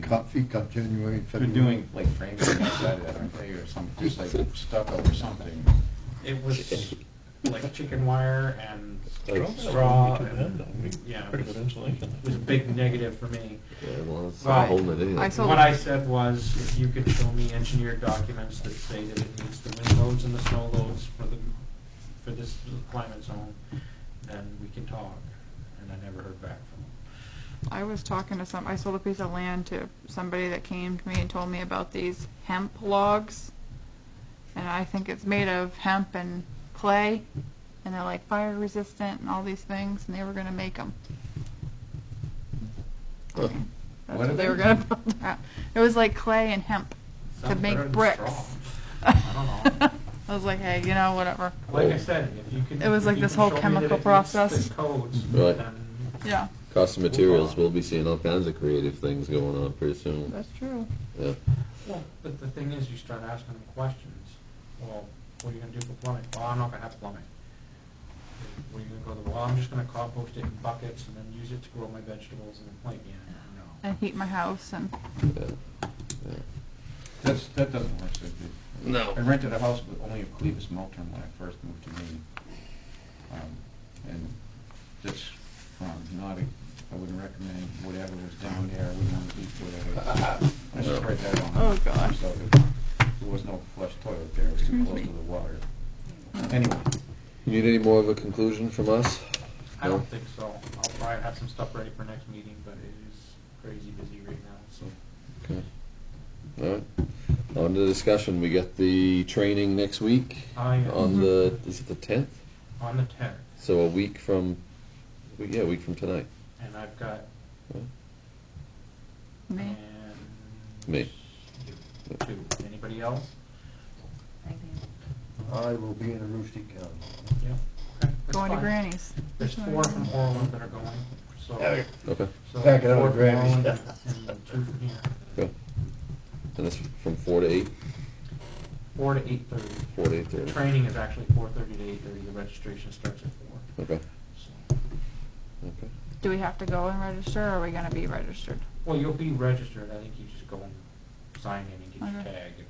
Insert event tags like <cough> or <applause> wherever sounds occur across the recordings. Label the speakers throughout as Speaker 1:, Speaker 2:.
Speaker 1: cut, feet cut January,
Speaker 2: They're
Speaker 1: February.
Speaker 2: doing like framing inside of that, aren't they, or some, just <laughs> like stucco or something.
Speaker 3: It was like chicken wire and
Speaker 4: Like-
Speaker 3: straw,
Speaker 4: Pretty good
Speaker 3: and,
Speaker 4: insulation.
Speaker 3: yeah,
Speaker 4: Pretty
Speaker 3: it
Speaker 4: good
Speaker 3: was-
Speaker 4: insulation.
Speaker 3: it was a big negative for me.
Speaker 4: Yeah, well, it's
Speaker 3: Right.
Speaker 4: a whole nother deal.
Speaker 5: I saw-
Speaker 3: What I said was, if you could show me engineered documents that say that it meets the wind loads and the snow loads for the, for this climate zone, then we can talk, and I never heard back from them.
Speaker 5: I was talking to some, I sold a piece of land to somebody that came to me and told me about these hemp logs. And I think it's made of hemp and clay, and they're like fire resistant and all these things, and they were gonna make them.
Speaker 4: Huh.
Speaker 5: That's
Speaker 2: What are
Speaker 5: what they
Speaker 2: they?
Speaker 5: were gonna <laughs> build out. It was like clay and hemp to
Speaker 3: Sounds
Speaker 5: make
Speaker 3: better than
Speaker 5: bricks. <laughs>
Speaker 3: straw. I don't know.
Speaker 5: I was like, hey, you know, whatever.
Speaker 3: Like I said, if you can.
Speaker 5: It was
Speaker 3: if
Speaker 5: like
Speaker 3: you
Speaker 5: this
Speaker 3: can
Speaker 5: whole
Speaker 3: show me
Speaker 5: chemical
Speaker 3: that it meets
Speaker 5: process.
Speaker 3: the codes,
Speaker 4: Right.
Speaker 3: then
Speaker 5: Yeah,
Speaker 4: Cost of materials, we'll be seeing all kinds of creative things going on pretty soon.
Speaker 5: that's true.
Speaker 4: Yeah.
Speaker 3: Well, but the thing is, you start asking them questions. Well, what are you gonna do for plumbing? Well, I'm not gonna have plumbing. Where are you gonna go to? Well, I'm just gonna compost it in buckets and then use it to grow my vegetables and then plant again. No.
Speaker 5: I heat my house and,
Speaker 4: yeah, yeah.
Speaker 2: That's, that doesn't work so good.
Speaker 4: No.
Speaker 2: I rented a house with only a clevis Milton when I first moved to Maine. Um, And that's, um, not a, I wouldn't recommend whatever was down there, I wouldn't want to eat whatever. I just spread that on.
Speaker 5: Oh, gosh.
Speaker 2: So there there was no flush toilet there, it was too close to the water. Anyway,
Speaker 4: You Need any more of a conclusion from us?
Speaker 3: I don't think so. I'll try and have some stuff ready for next meeting, but it is crazy busy right now, so.
Speaker 4: Okay. All right. On to the discussion. We got the training next week
Speaker 3: I am
Speaker 5: Mm-hmm.
Speaker 4: on the, is it the tenth?
Speaker 3: on the tenth,
Speaker 4: So a week from, yeah, a week from tonight.
Speaker 3: and I've got,
Speaker 5: me,
Speaker 3: and.
Speaker 4: Me.
Speaker 3: you. Two. Anybody else?
Speaker 1: I will be in Aroostook County.
Speaker 3: Yeah. Okay, that's
Speaker 5: going to
Speaker 3: fine.
Speaker 5: Granny's.
Speaker 3: There's four from Orland that are going, so.
Speaker 4: Okay.
Speaker 3: So
Speaker 1: Back it up,
Speaker 3: four from
Speaker 1: Granny.
Speaker 3: Orland and- and two from here.
Speaker 4: Good. And that's from four to eight,
Speaker 3: Four to eight thirty.
Speaker 4: four to eight
Speaker 3: The
Speaker 4: thirty.
Speaker 3: training is actually four thirty to eight thirty, the registration starts at four,
Speaker 4: Okay.
Speaker 3: so.
Speaker 4: Okay.
Speaker 5: Do we have to go and register, or are we gonna be registered?
Speaker 3: Well, you'll be registered, I think you just go and sign in and get your
Speaker 5: Okay.
Speaker 3: tag and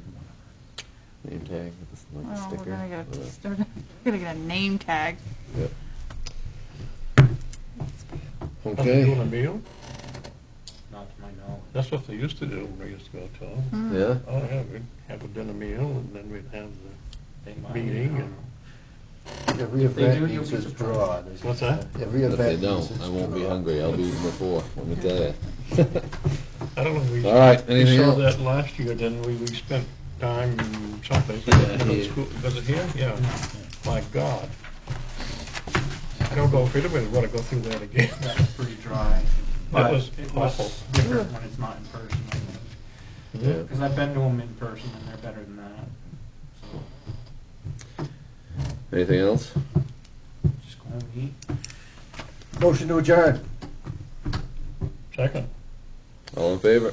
Speaker 3: whatever.
Speaker 4: Name tag with the like,
Speaker 5: Well, Oh, we're
Speaker 4: sticker.
Speaker 5: gonna get,
Speaker 4: Uh,
Speaker 5: a- <laughs> we're gonna get a name tag.
Speaker 4: yeah.
Speaker 6: Doing a
Speaker 4: Okay.
Speaker 6: meal?
Speaker 3: Not to my knowledge.
Speaker 6: That's what they used to do when we used to go to. them.
Speaker 5: Mm.
Speaker 4: Yeah.
Speaker 6: Oh, yeah, we'd have a dinner meal and then we'd have the,
Speaker 3: They might, I
Speaker 6: Meeting
Speaker 3: don't
Speaker 6: and-
Speaker 3: know.
Speaker 1: Every
Speaker 3: If they do,
Speaker 1: event
Speaker 3: you'll
Speaker 1: needs
Speaker 3: be
Speaker 1: its
Speaker 3: surprised.
Speaker 1: draw. There's-
Speaker 6: What's that?
Speaker 1: Every
Speaker 4: If they
Speaker 1: event needs
Speaker 4: don't,
Speaker 1: its
Speaker 4: I won't be
Speaker 1: draw.
Speaker 4: hungry. I'll be eating before. Let me tell you.
Speaker 6: I don't know. we-
Speaker 4: All right, anything
Speaker 6: We saw
Speaker 4: else?
Speaker 6: that last year, then we, we spent time someplace. Was
Speaker 4: here.
Speaker 6: it school- was it here? Yeah. My God. I don't know if anybody would to go through that again. <laughs>
Speaker 3: That was pretty dry, but
Speaker 6: was
Speaker 3: it was
Speaker 6: awful.
Speaker 3: different when it's not in person, I think.
Speaker 4: Yeah.
Speaker 3: Cause I've been to them in person and they're better than that, so
Speaker 4: <laughs> Anything else?
Speaker 3: just go home and eat.
Speaker 1: Motion to adjourn.
Speaker 6: Second.
Speaker 4: All in favor?